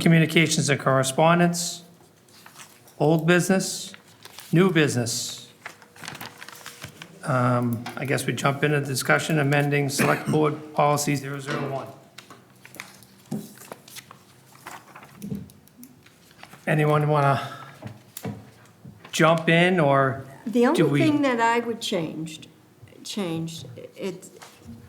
Communications and correspondence, old business, new business. Um, I guess we jump into discussion amending Select Board Policy 001. Anyone want to jump in, or The Do we- only thing that I would changed, changed, it,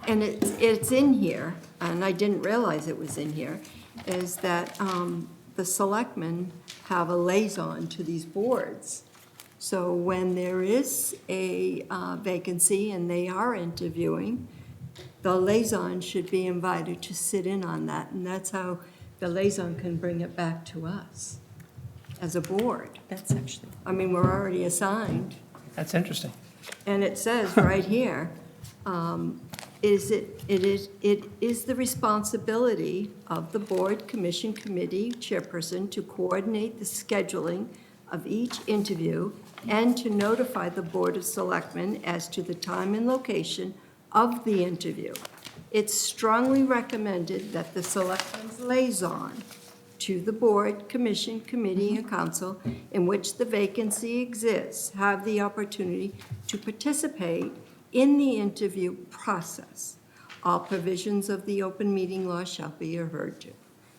and it's, it's in here, and I didn't realize it was in here, is that um, the selectmen have a liaison to these boards. So when there is a uh, vacancy and they are interviewing, the liaison should be invited to sit in on that, and that's how the liaison can bring it back to us as a board. That's actually, I mean, we're already assigned. that's interesting. And it says right here, um, is it, it is, it is the responsibility of the board, commission, committee, chairperson to coordinate the scheduling of each interview and to notify the Board of Selectmen as to the time and location of the interview. It's strongly recommended that the selectmen's liaison to the board, commission, committee, and council in which the vacancy exists have the opportunity to participate in the interview process. All provisions of the open meeting law shall be adhered to.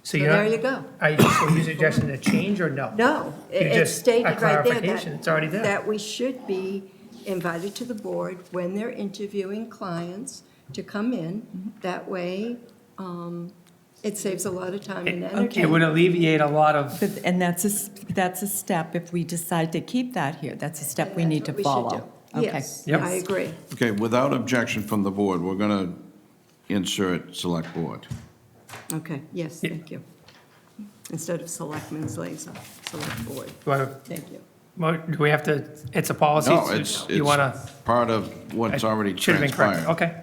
So So you're not- there you go. Are you, so you suggesting a change or no? No, it- You it's just- a stated right there clarification, that. it's already there. That we should be invited to the board when they're interviewing clients to come Mm-hmm. in. That way, um, it saves a lot of time and energy. It would alleviate a lot of, but- and that's a, s- that's a step, if we decide to keep that here, that's a step we That's need to what should follow. do. Okay. Yes, Yep. I agree. Okay, without objection from the board, we're going to insert select board. Okay, yes, Yeah. thank you. Instead of selectmen's liaison, select board, do I- thank you. mo- do we have to, it's a policy? No, so it's, You want to? it's part of what's already Should have been correct, transpired. okay.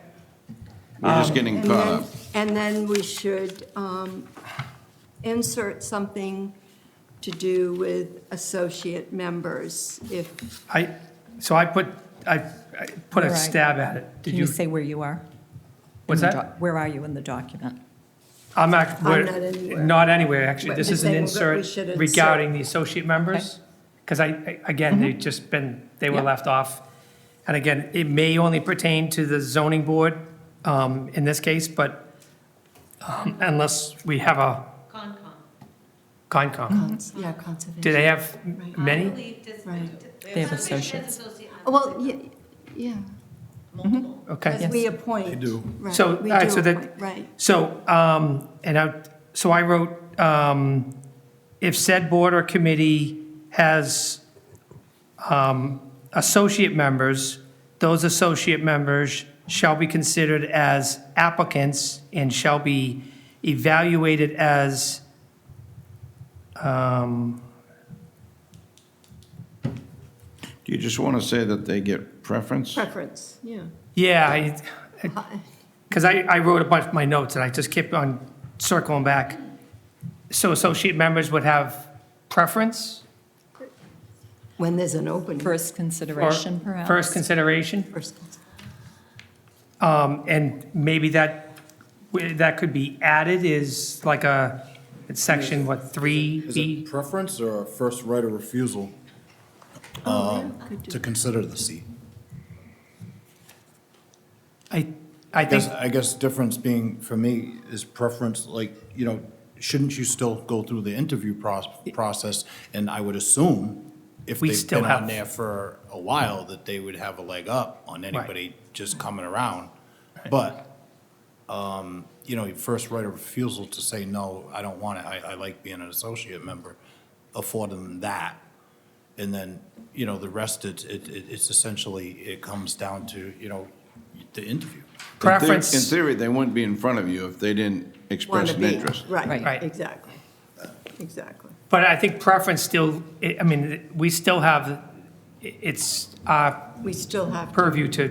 We're just getting Um, And caught then, up. and then we should um, insert something to do with associate members if, I, so I put, I, I put a Right. stab at it. Did Can you you, say where you are? what's In the that? doc- Where are you in the document? I'm not, I'm not we're, anywhere. not anywhere, actually. But This you're is an saying that we insert should insert- regarding the associate members. Because I, I- again, they've just been, they were Yeah. left off. And again, it may only pertain to the zoning board um, in this case, but um, unless we have a Concom. Mm-hmm. Concom. yeah, conservation. Do they have I many? believe this, Right. They have Conservation associates. has associate- Well, ye- yeah, multiple. Okay. because we appoint. They do. Right, Uh, So, we all right, do so that- appoint, Right, So, um, and I, so I wrote, um, if said board or committee has, um, associate members, those associate members shall be considered as applicants and shall be evaluated as, um, Do you just want to say that they get preference? preference, yeah. yeah, I, Because I, I wrote a bunch of my notes, and I just kept on circling back. So associate members would have preference When there's an opening. First or consideration, perhaps? first consideration? First. Um, And maybe that, that could be added is like a, it's section, what, Is it 3B? preference or a first right of refusal um, Oh, could do to consider the seat? I, I I guess, think, I guess difference being, for me, is preference, like, you know, shouldn't you still go through the interview pros- process? And I would assume if We they've still been have- on there for a while, that they would have a leg up on anybody just coming around. But, um, you know, your first right of refusal to say, no, I don't want it, I, I like being an associate member, afford them that. And then, you know, the rest, it's, it, it- it's essentially, it comes down to, you know, the interview. In theory- In preference, theory, they wouldn't be in front of you if they didn't Want express to an be, interest. right, Right. exactly, exactly. but I think preference still, I I mean, we still have, it's our We still have to purview to,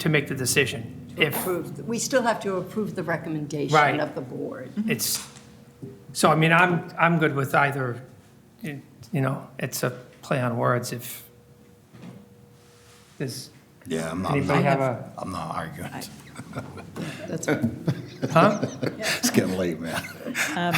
to make the decision. If, approve, we still have to approve the recommendation Right. of the board. it's, so I mean, I'm, I'm good with either, you you know, it's a play on words if, does Yeah, I'm anybody have a, I'm not arguing. That's huh? It's getting late, man.